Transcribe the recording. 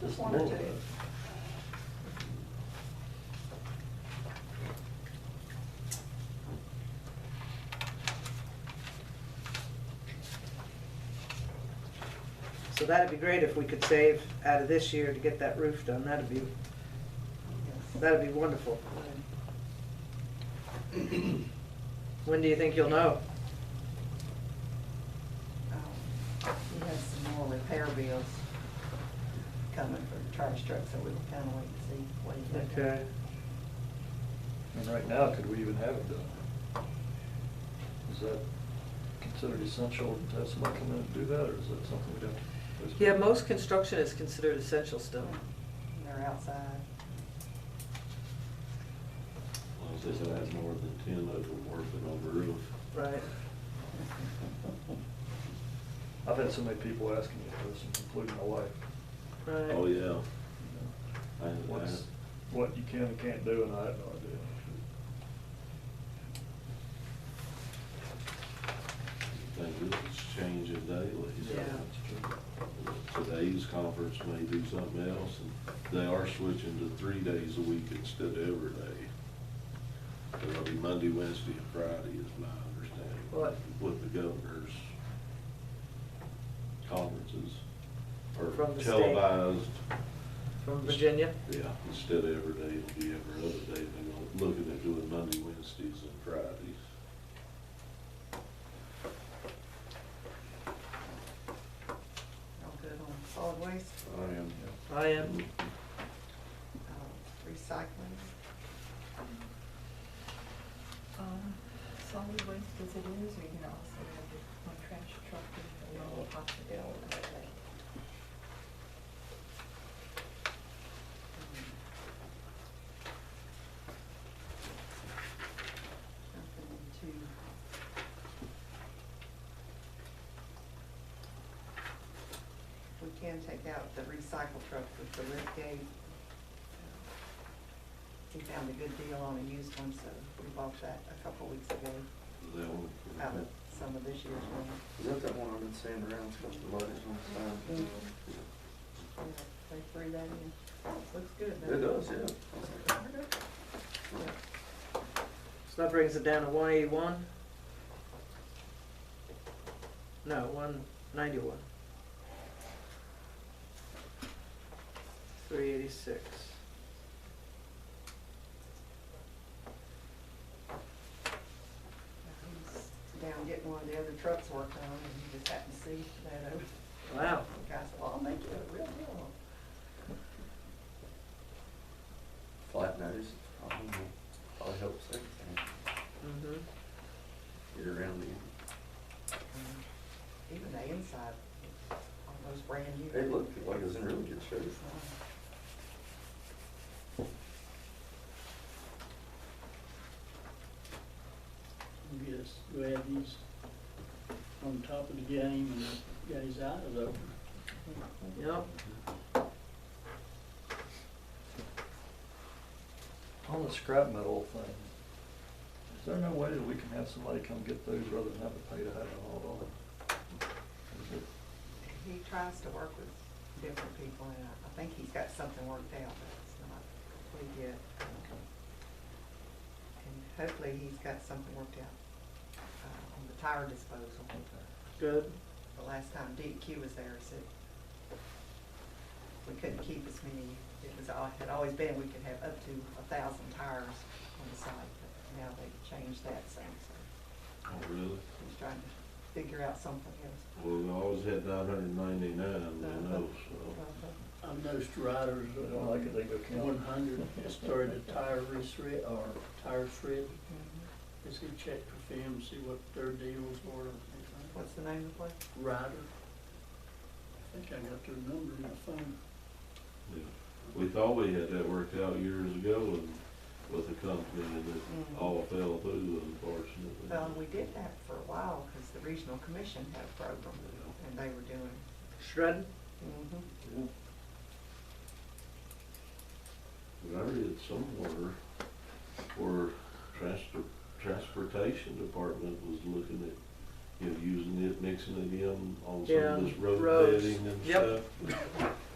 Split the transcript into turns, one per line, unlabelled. Just one or two.
So that'd be great if we could save out of this year to get that roof done, that'd be, that'd be wonderful. When do you think you'll know?
Um, He has some more repair bills coming for the trash truck, so we'll kind of wait and see what he's looking at.
Okay,
And right now, could we even have it done? Is that considered essential to have somebody come in and do that, or is that something we'd have to? postpone?
uh, yeah, most construction is considered essential still.
They're outside.
Well, It says it has more than ten of them working on the roof.
Right.
I've had so many people asking me this, including my wife.
Right.
Oh, yeah. I- I-
What's, what you can and can't do, and I have no idea.
Things is changing daily, so
Yeah.
today's conference may do something else, and they are switching to three days a week instead of every day. It'll be Monday, Wednesday, and Friday is my understanding.
What?
With the governor's conferences, or
From the state.
televised.
From Virginia?
Yeah, instead of every day, it'll be every other day, they're looking at doing Monday, Wednesdays, and Fridays.
All good on solid waste,
I am.
I am.
uh, recycling.
Um, solid waste as it is, or you can also have it on trash truck if you know possibility.
Nothing too. We can take out the recycle truck with the lift gate. He found a good deal on a used one, so we bought that a couple weeks ago
That one.
out of some of this year's one.
Is that that one I've been seeing around, it's got the letters on the side?
Yeah, They threw that in. Looks good.
It
doesn't
does, yeah.
So that brings it down to one eighty-one? No, one ninety-one. Three eighty-six.
He's Down getting one of the other trucks worked on, and he just happened to see that, over.
Wow,
the guy said, well, I'll make you a real deal on it."
Flat nose, I don't know, probably helps everything,
mhm,
get around
Even the inside, almost brand
the,
new.
it looked like it was in really good shape.
Yes, glad he's on top of the game and got his eyes open.
yep.
On the scrap metal thing, is there no way that we can have somebody come get those rather than have to pay to have it hauled on? Is it-
He tries to work with different people, and I I think he's got something worked out, but it's not complete yet. And hopefully, he's got something worked out uh, on the tire disposal.
Good,
The last time DQ was there, he said we couldn't keep as many, it was, al- had always been, we could have up to a thousand tires on the site, but now they've changed that, so so
Oh, really?
he's trying to figure out something else.
Well, we always had nine hundred ninety-nine, they know, so.
Uh-huh.
I noticed riders
They don't like it, they go count.
one hundred started a tire reshred or tire shred.
Mhm.
Is he checked for film, see what their deals were? and things like
What's the name of the place?
that. Rider. I think I got their number in my phone.
yeah. We thought we had that worked out years ago and with the company and it all fell through unfortunately.
Well, and we did that for a while, because the regional commission had a program, and they were doing.
shredding?
Yeah. But I read somewhere where transpor- transportation department was looking at, you know, using it, mixing it in on some
Yeah,
of this road
roads.
bedding and
Yep.
stuff.